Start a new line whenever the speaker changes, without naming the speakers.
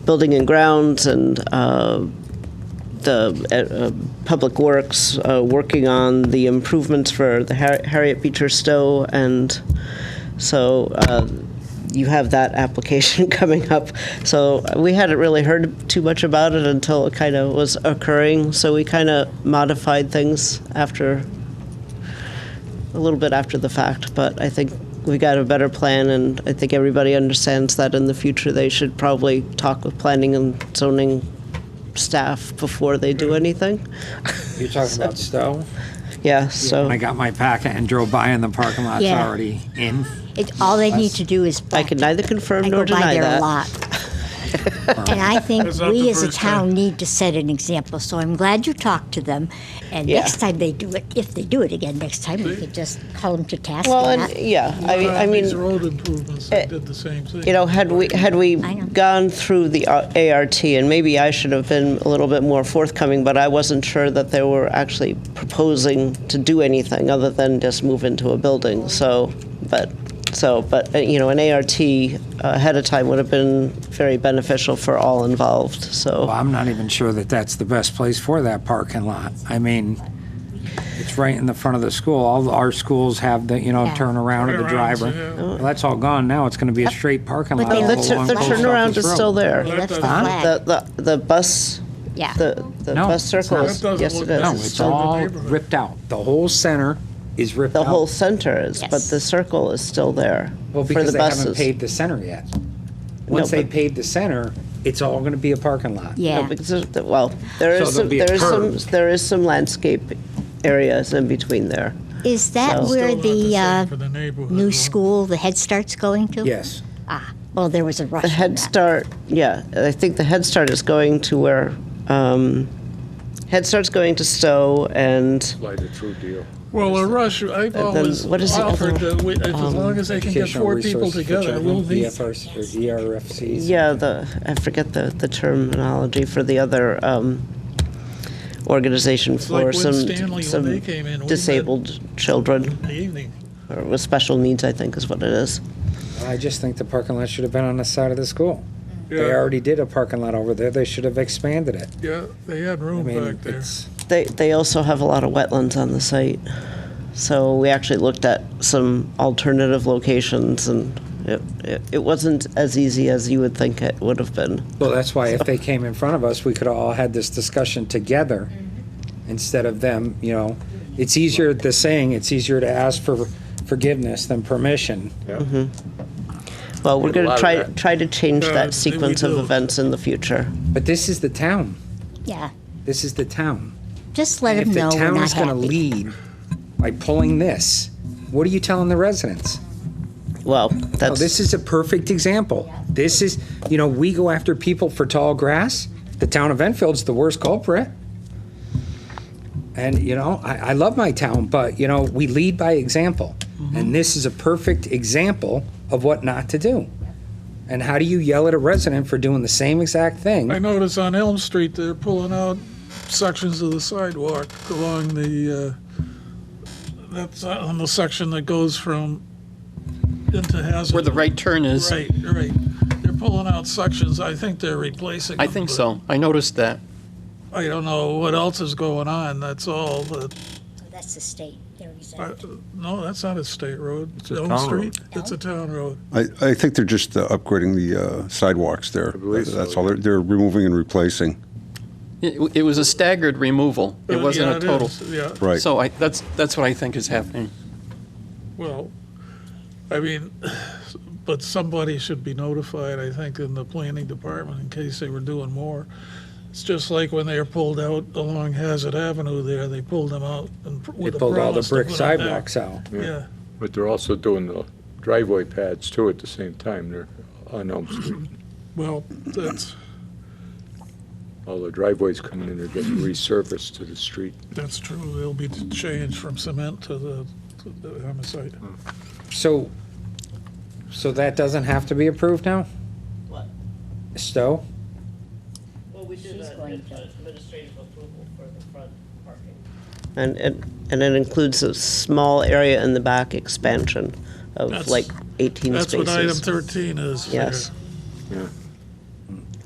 building and grounds and uh, the uh, uh, Public Works uh, working on the improvements for the Har- Harriet Beecher Stowe, and so uh, you have that application coming up. So we hadn't really heard too much about it until it kind of was occurring. So we kind of modified things after a little bit after the fact, but I think we got a better plan, and I think everybody understands that in the future they should probably talk with planning and zoning staff before they do anything.
You're talking about Stowe?
Yeah, so
I got my packet and drove by and the parking lot's
Yeah.
already in.
It, all they need to do is.
I can
practice.
neither confirm nor
I
deny
go by there a
that.
lot. And I think
That's not
we
the
as a
first
town
time.
need to set an example, so I'm glad you talked to them. And
Yeah.
next time they do it, if they do it again next time, we could just call them to task.
Well,
on
and
that.
yeah, I mean, I
These
mean,
road improvements, they did the same thing.
you know, had we had we
I know.
gone through the uh, ART, and maybe I should have been a little bit more forthcoming, but I wasn't sure that they were actually proposing to do anything other than just move into a building. So, but. So, but uh, you know, an ART uh, ahead of time would have been very beneficial for all involved. So,
Well, I'm not even sure that that's the best place for that parking lot. I mean, it's right in the front of the school. All our schools have the, you know,
Yeah.
turnaround of the
Turnarounds,
driver.
yeah.
Well, that's all gone now. It's going to be a straight parking
But
lot.
they
No, the,
all
Well,
tur-
along
the
Well,
Post
turnaround
Office
is
Road.
still there.
They
That
left the
doesn't-
flag,
The, the, the bus,
yeah.
the, the
No,
bus
it's
circle
not.
is,
That doesn't
yes
look
it
good.
is.
No,
It's
it's
still in the
all
neighborhood.
ripped out. The whole center is ripped
The
out.
whole center is, but
Yes.
the circle is still there
Well,
for
because
the
they haven't
buses.
paved the center yet. Once they
but-
pave the center, it's all going to be a parking lot.
No,
Yeah.
because there's- Well, there
So
is, some-
there'll be a
there is some,
curve.
there is some landscape areas in between there.
Is that
So-
where
Still not the
the,
same
uh,
for the neighborhood
new
one.
school, the Head Start's going to?
Yes.
Ah, well, there was a rush
The
on
Head
that.
Start, yeah, I think the Head Start is going to where, um, Head Start's going to Stowe and,
like a true deal.
Well, a rush, I've
then
always
what is the other
offered that we- if- as long as they can get
Educational
four people
resources for
together,
children,
we'll meet.
EFRs or E ERFCs.
yeah, the, I forget the, the terminology for the other, um, organization
It's like
for
when
some,
Stanley, when they
some
came in, we met
disabled children,
in the evening.
or with special needs, I think is what it is.
I just think the parking lot should have been on the side of the school. They
Yeah.
already did a parking lot over there. They should have expanded it.
Yeah, they had
I
room
mean,
back there.
it's,
They, they also have a lot of wetlands on the site. So we actually looked at some alternative locations and it, it, it wasn't as easy as you would think it would have been.
well, that's why if they came in front of us, we could have all had this discussion together
Mm-hmm.
instead of them, you know. It's easier, the saying, it's easier to ask for forgiveness than permission.
Well, we're
Did a
going to
lot of
try,
that.
try to change
Yeah,
that
I think we
sequence of
do.
events in the future.
But this is the town.
Yeah,
This is the town.
just let them
If the
know we're
town
not
is going to
happy.
lead by pulling this, what are you telling the residents?
Well,
Oh,
that's,
this is a perfect example. This is, you know, we go after people for tall grass. The town of Enfield's the worst culprit. And, you know, I, I love my town, but, you know, we lead by example.
Mm-hmm.
And this is a perfect example of what not to do. And how do you yell at a resident for doing the same exact
I
thing?
noticed on Elm Street, they're pulling out sections of the sidewalk along the, uh, that's on the section that goes from into Hazard.
where the right turn is.
Right, right. They're pulling out sections. I think they're replacing
I
them,
think
but
so. I noticed that.
I don't know what else is going on, that's all. but-
That's the state, they're
I-
exempt.
No, that's not a state road. It's
a
Elm
town
Street.
road.
It's a town road.
I, I think they're just uh, upgrading the uh, sidewalks there.
believe so,
That's all. They're, they're removing and replacing.
It, it was a staggered removal. It
Uh,
wasn't
yeah,
a total.
is, Yeah,
Right.
So I, that's that's what I think is happening.
well, I mean, but somebody should be notified, I think, in the planning department in case they were doing more. It's just like when they were pulled out along Hazard Avenue there, they pulled them out and pr-
They
with a
pulled all the
promise to
brick
put them back.
sidewalks out.
Yeah,
But they're also doing the driveway pads too at the same time. They're on Elm Street.
well, that's,
All the driveways coming in are getting resurfaced to the street.
that's true. They'll be changed from cement to the, to the homicide.
So, so that doesn't have to be approved now?
What?
Stowe?
Well, we did
She's a- going to-
administrative approval for the front parking. And it, and it includes a small area in the back expansion of
That's-
like 18
That's
spaces.
what item 13 is. there.
Yes.